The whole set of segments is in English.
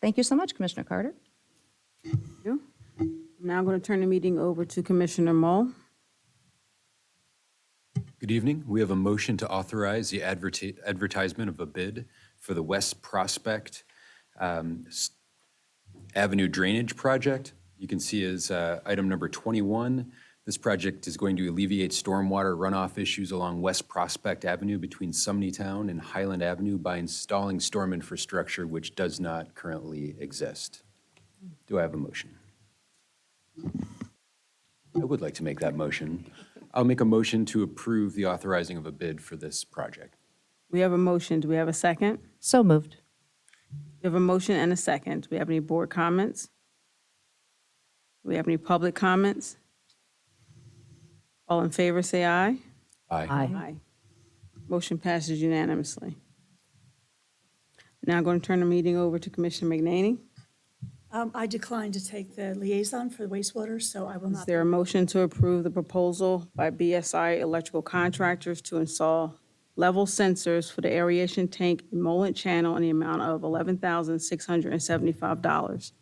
Thank you so much, Commissioner Carter. you. I'm now going to turn the meeting over to Commissioner Mull. Good evening. We have a motion to authorize the adverti- advertisement of a bid for the West Prospect um, s- Avenue Drainage Project. You can see is uh, item number 21. This project is going to alleviate stormwater runoff issues along West Prospect Avenue between Sumney Town and Highland Avenue by installing storm infrastructure which does not currently exist. Do I have a motion? I would like to make that motion. I'll make a motion to approve the authorizing of a bid for this project. We have a motion. Do we have a second? So moved. We have a motion and a second. Do we have any board comments? Do we have any public comments? All in favor, say aye. Aye. Aye. Motion passes unanimously. Now I'm going to turn the meeting over to Commissioner McNaney. Um, I declined to take the liaison for wastewater, so I will Is not. there a motion to approve the proposal by BSI Electrical Contractors to install level sensors for the aeration tank emollient channel in the amount of $11,675?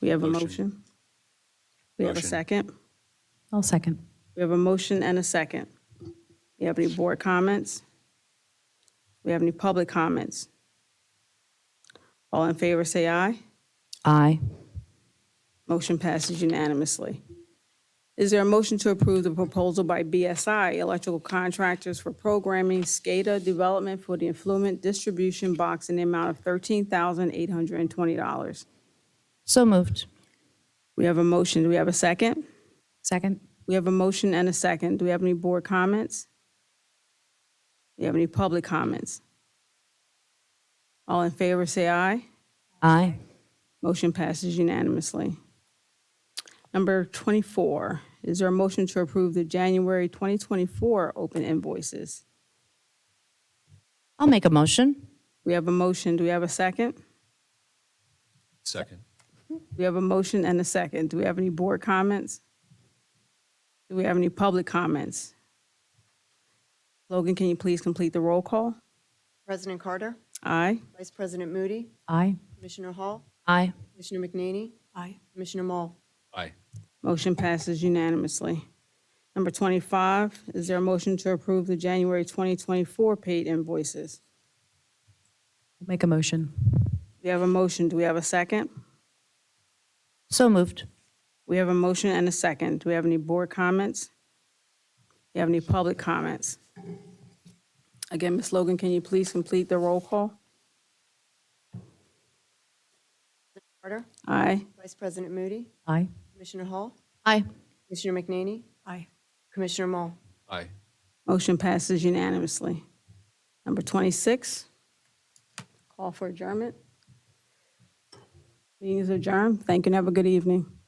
We have a Motion. motion? We have a Motion. second? I'll second. We have a motion and a second. We have any board comments? We have any public comments? All in favor, say aye. Aye. Motion passes unanimously. Is there a motion to approve the proposal by BSI Electrical Contractors for programming SCADA development for the influent distribution box in the amount of $13,820? So moved. We have a motion. Do we have a second? Second. We have a motion and a second. Do we have any board comments? Do we have any public comments? All in favor, say aye. Aye. Motion passes unanimously. Number 24, is there a motion to approve the January 2024 open invoices? I'll make a motion. We have a motion, do we have a second? Second. We have a motion and a second. Do we have any board comments? Do we have any public comments? Logan, can you please complete the roll call? President Carter, Aye. Vice President Moody, Aye. Commissioner Hall, Aye. Commissioner McNaney, Aye. Commissioner Mull. Aye. Motion passes unanimously. Number 25, is there a motion to approve the January 2024 paid invoices? Make a motion. We have a motion. Do we have a second? So moved. We have a motion and a second. Do we have any board comments? Do you have any public comments? Again, Ms. Logan, can you please complete the roll call? Carter, Aye. Vice President Moody, Aye. Commissioner Hall, Aye. Commissioner McNaney, Aye. Commissioner Mull. Aye. Motion passes unanimously. Number 26, call for adjournment. Meeting is adjourned. Thank you and have a good evening.